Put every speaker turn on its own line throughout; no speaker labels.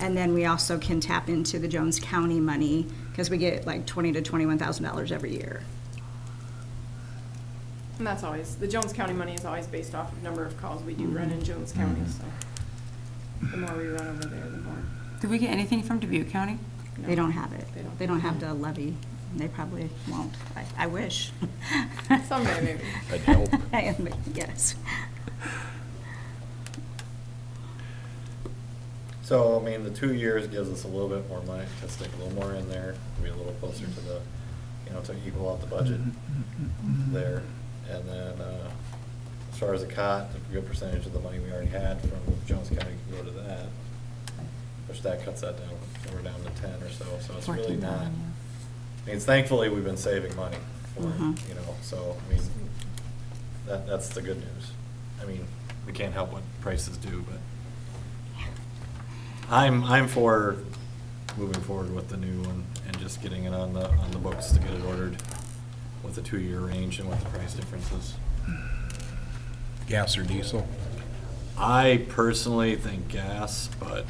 And then we also can tap into the Jones County money, because we get like twenty to twenty-one thousand dollars every year.
And that's always, the Jones County money is always based off of number of calls we do run in Jones
Mm-hmm.
County, so the more we run over there, the more.
Did we get anything from Dubuque County?
They don't have it.
They don't.
They don't have the levy. They probably won't. I, I wish.
Someday, maybe.
That'd help.
Yes.
So, I mean, the two years gives us a little bit more money to stick a little more in there, be a little closer to the, you know, to equal out the budget
Mm-hmm.
there. And then, uh, as far as the cot, a good percentage of the money we already had from Jones County can go to that, which that cuts that down, we're down to ten or so, so it's really
Fourteen
not.
thousand,
I mean, thankfully, we've been saving money for,
Mhm.
it, you know, so, I mean, that, that's the good news. I mean, we can't help what prices do, but I'm, I'm for moving forward with the new one and just getting it on the, on the books to get it ordered with the two-year range and what the price difference is.
Gas or diesel?
I personally think gas, but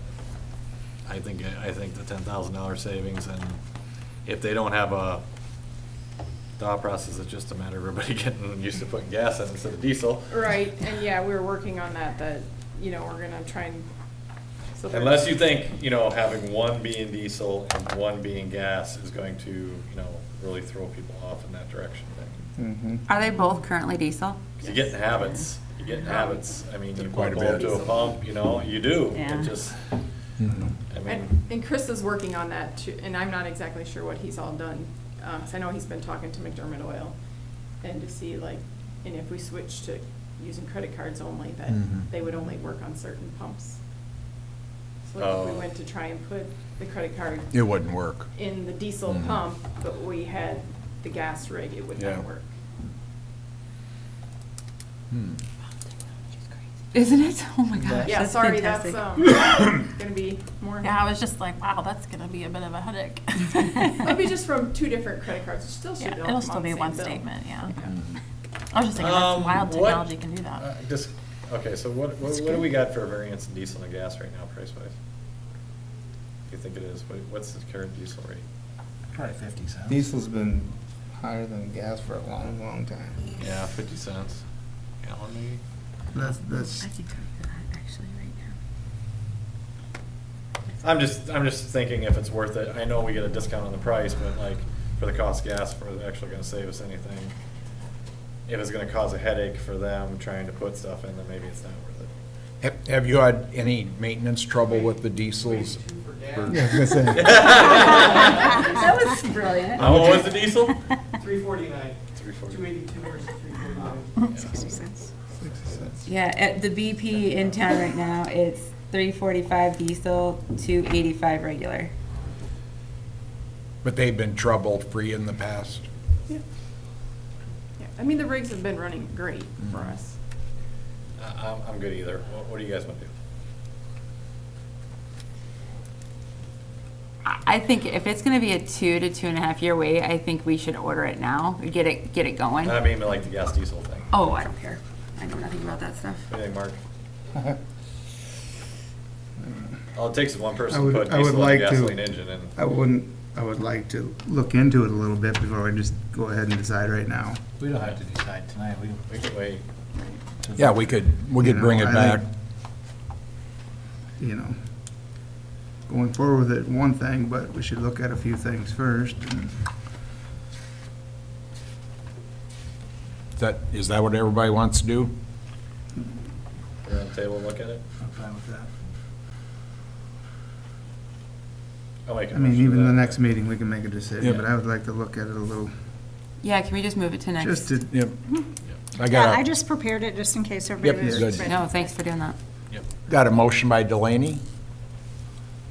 I think, I think the ten thousand dollar savings and if they don't have a thought process, it's just a matter of everybody getting used to putting gas in instead of diesel.
Right, and yeah, we were working on that, that, you know, we're gonna try and. so there-
Unless you think, you know, having one being diesel and one being gas is going to, you know, really throw people off in that direction.
Hmm.
Mm-hmm.
Are they both currently diesel?
Cause you get in habits, you get in habits. I mean, you
Quite a
go up
bit.
to a pump, you know, you do.
Yeah.
It just,
Hmm.
I mean.
And, and Chris is working on that too, and I'm not exactly sure what he's all done, Um 'cause I know he's been talking to McDermott Oil and to see like, and if we switch to using credit cards only, that
Mm-hmm.
Mhm.
they would only work on certain pumps. So if we
Oh.
went to try and put the credit card
It wouldn't work.
in the diesel
Mhm.
pump, but we had the gas rig, it would
Yeah.
not work.
Mm-hmm.
Hmm.
Isn't it? Oh my gosh.
Yeah,
that's
sorry, that's,
fantastic.
um, gonna be more.
Yeah, I was just like, wow, that's gonna be a bit of a headache.
It'll be just from two different credit cards, it still should
Yeah,
be. all
it'll
come
still
on the
be
same
one
bill.
statement, yeah.
Mm-hmm.
Mhm.
I was just thinking,
Um,
that's wild
what-
technology can do
uh,
that.
Just, okay, so what, what
That's
what do
good.
we got for variance in diesel and gas right now, price wise? Do you think it is? What- What's the current diesel rate?
Probably fifty cents.
Diesel's been higher than gas for a long, long time.
Yeah, fifty cents gallon maybe?
That's, that's,
I'm just, I'm just thinking if it's worth it. I know we get a discount on the price, but like, for the cost of gas, for it actually gonna save us anything. If it's gonna cause a headache for them trying to put stuff in, then maybe it's not worth it.
Have have you had any maintenance trouble with the diesels?
Yeah, I was gonna say.
uh,
That was brilliant.
How much was the diesel?
three forty-nine,
Three forty.
two eighty-two versus three forty-nine.
Sixty cents.
Yeah, at the BP in town right now, it's three forty-five diesel, two eighty-five regular.
But they've been trouble-free in the past?
Yeah, Yeah, I mean, the rigs have been running great for
Mhm.
us.
I- I'm, I'm good either. What, what do you guys wanna do?
I I think if it's gonna be a two to two and a half year wait, I think we should order it now, get it, get it going.
I mean, like the gas diesel thing.
Oh, I don't care. I know nothing about that stuff.
What do you think, Mark? All it takes is one
I
person to
would-
put
I would
diesel in a
like to-
gasoline engine and.
I wouldn't, I would like to look into it a little bit before I just go ahead and decide right now.
We don't have to decide tonight, we
We can wait.
Yeah, we could, we could bring it
You know, I
back.
think- You know, going forward with it, one thing, but we should look at a few things first. and-
Is That, is that what everybody wants to do?
We're on the table, and look at it.
I'm fine with that.
I'll make a
I mean,
motion for
even
that.
the next meeting, we can make a decision, but
Yeah.
I would like to look at it a little,
Yeah, can we just move it to next?
just to,
Yep. I
Yeah, I
got a,
just prepared it just in case everybody
Yep,
was
good.
ready.
No, thanks for doing that.
got a motion by Delaney?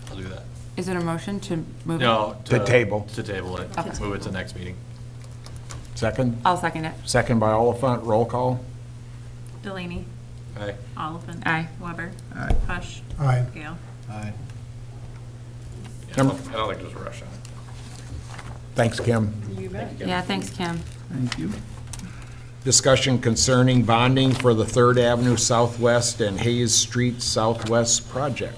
I'll do that.
Is it a motion to move it?
No.
To table.
To table it.
Okay.
Move it to next meeting.
Second?
I'll second it.
Second by Oliphant, roll call?
Delaney,
Aye.
Oliphant.
Aye.
Weber.
Aye.
Hush.
Aye.
Gale.
Aye.
Yeah, I
Number-
don't I don't think there's a rush on it.
Thanks, Kim.
You bet.
Yeah, thanks, Kim.
thank you.
Discussion concerning bonding for the Third Avenue Southwest and Hayes Street Southwest project.